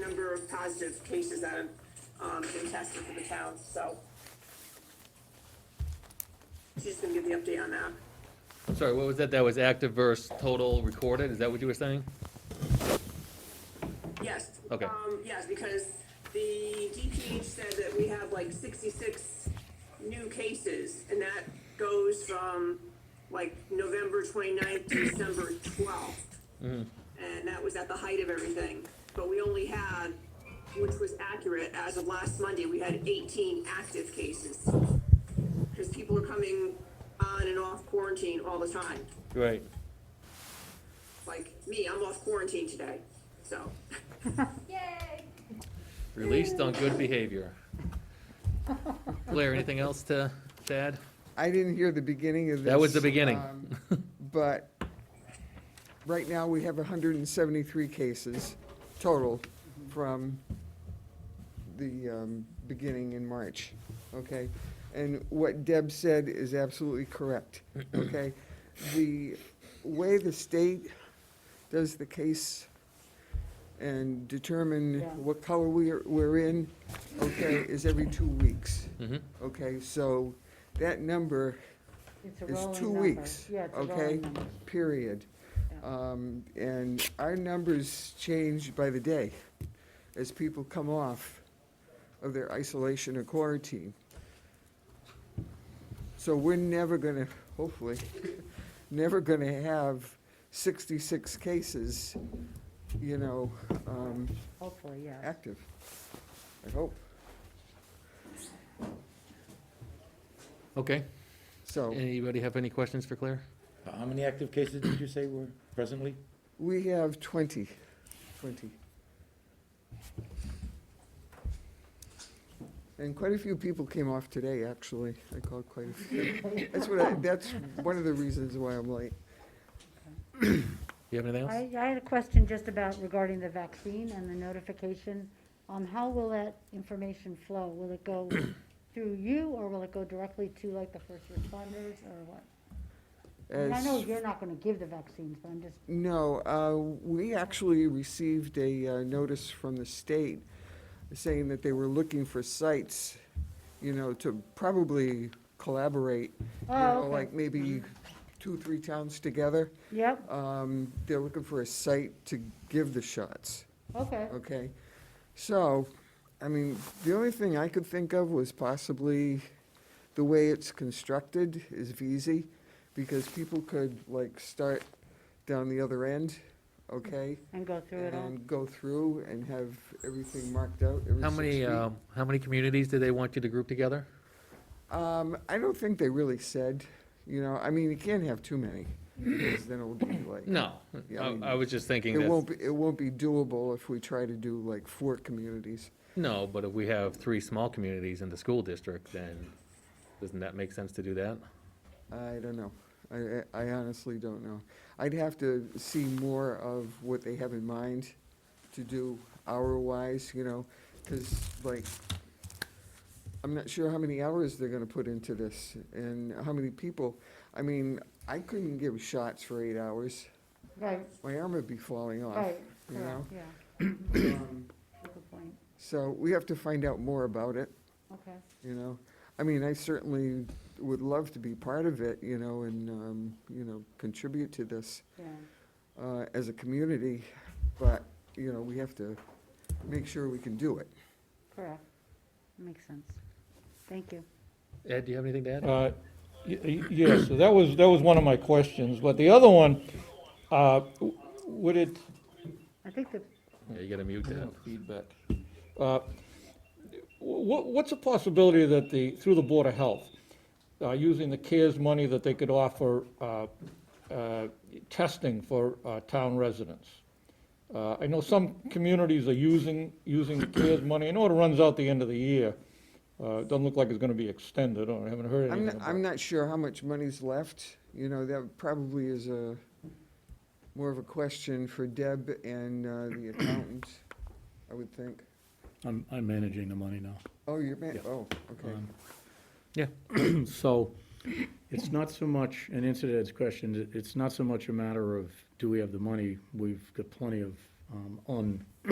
number of positive cases that have, um, been tested for the town, so. She's gonna give the update on that. I'm sorry, what was that? That was active versus total recorded? Is that what you were saying? Yes. Okay. Um, yes, because the DPH said that we have like sixty-six new cases, and that goes from like November 29th to December twelfth. And that was at the height of everything, but we only had, which was accurate, as of last Monday, we had eighteen active cases. Because people are coming on and off quarantine all the time, Right. like me, I'm off quarantine today, so. Yay! Released on good behavior. Blair, anything else to to add? I didn't hear the beginning of this. That was the beginning. um, But right now, we have 173 cases total from the um, beginning in March, okay? And what Deb said is absolutely correct, okay? The way the state does the case and determine what color we're, we're in, okay, is every two weeks. Mhm. Okay, so that number It's a is rolling two number. weeks, Yeah, it's a okay? rolling number. Period. Yeah. Um, And our numbers change by the day as people come off of their isolation or quarantine. So we're never gonna, hopefully, never gonna have sixty-six cases, you know, um, Hopefully, yeah. active. I hope, Okay. so. Anybody have any questions for Claire? How many active cases did you say were presently? We have 20, 20. And quite a few people came off today, actually. I called quite a few. That's what I, that's one of the reasons why I'm late. You have anything else? I, I had a question just about regarding the vaccine and the notification. Um, how will that information flow? Will it go through you, or will it go directly to like the first responders, or what? I mean, I As- know you're not gonna give the vaccines, but I'm just, No, uh, we actually received a uh, notice from the state saying that they were looking for sites, you know, to probably collaborate. you Oh, know, okay. Like maybe two, three towns together. yep, Um, They're looking for a site to give the shots, okay, okay? So, I mean, the only thing I could think of was possibly the way it's constructed is VZ, because people could, like, start down the other end, okay? and go through it all. And go through and have everything marked out every How six many, feet. um, how many communities do they want you to group together? Um, I don't think they really said, you know, I mean, you can't have too many, because then it'll be like. No, Yeah, I I mean, I was just thinking It that, won't be, it won't be doable if we try to do like four communities. no, but if we have three small communities in the school district, then doesn't that make sense to do that? I don't know. I, I I honestly don't know. I'd have to see more of what they have in mind to do hour-wise, you know, because like, I'm not sure how many hours they're gonna put into this and how many people. I mean, I couldn't give shots for eight hours. Right, My arm would be falling off. right, you correct, know? yeah, Um, good point, So we have to find out more about it. okay. you know? I mean, I certainly would love to be part of it, you know, and, um, you know, contribute to this, Yeah, uh, as a community, but, you know, we have to make sure we can do it. correct. Makes sense. Thank you. Ed, do you have anything to Oh. add? Uh, y- y- Yes, so that was, that was one of my questions, but the other one, uh, w- would it, I think the, Yeah, you gotta mute that. feedback. Uh, wh- What's a possibility that the, through the Board of Health, uh, using the CARES money that they could offer uh, uh, testing for uh, town residents? Uh, I know some communities are using, using the CARES money. I know it runs out the end of the year. Uh, It Doesn't look like it's going to be extended, or I haven't I'm, heard anything not- about it. I'm not sure how much money's left, you know, that probably is a, more of a question for Deb and, uh, the accountant, I would think. I'm, I'm managing the money now. Oh, you're, ma- oh, Um, okay. Yeah, So it's not so much, and answer to Ed's question, it- it's not so much a matter of do we have the money? We've got plenty of um, un,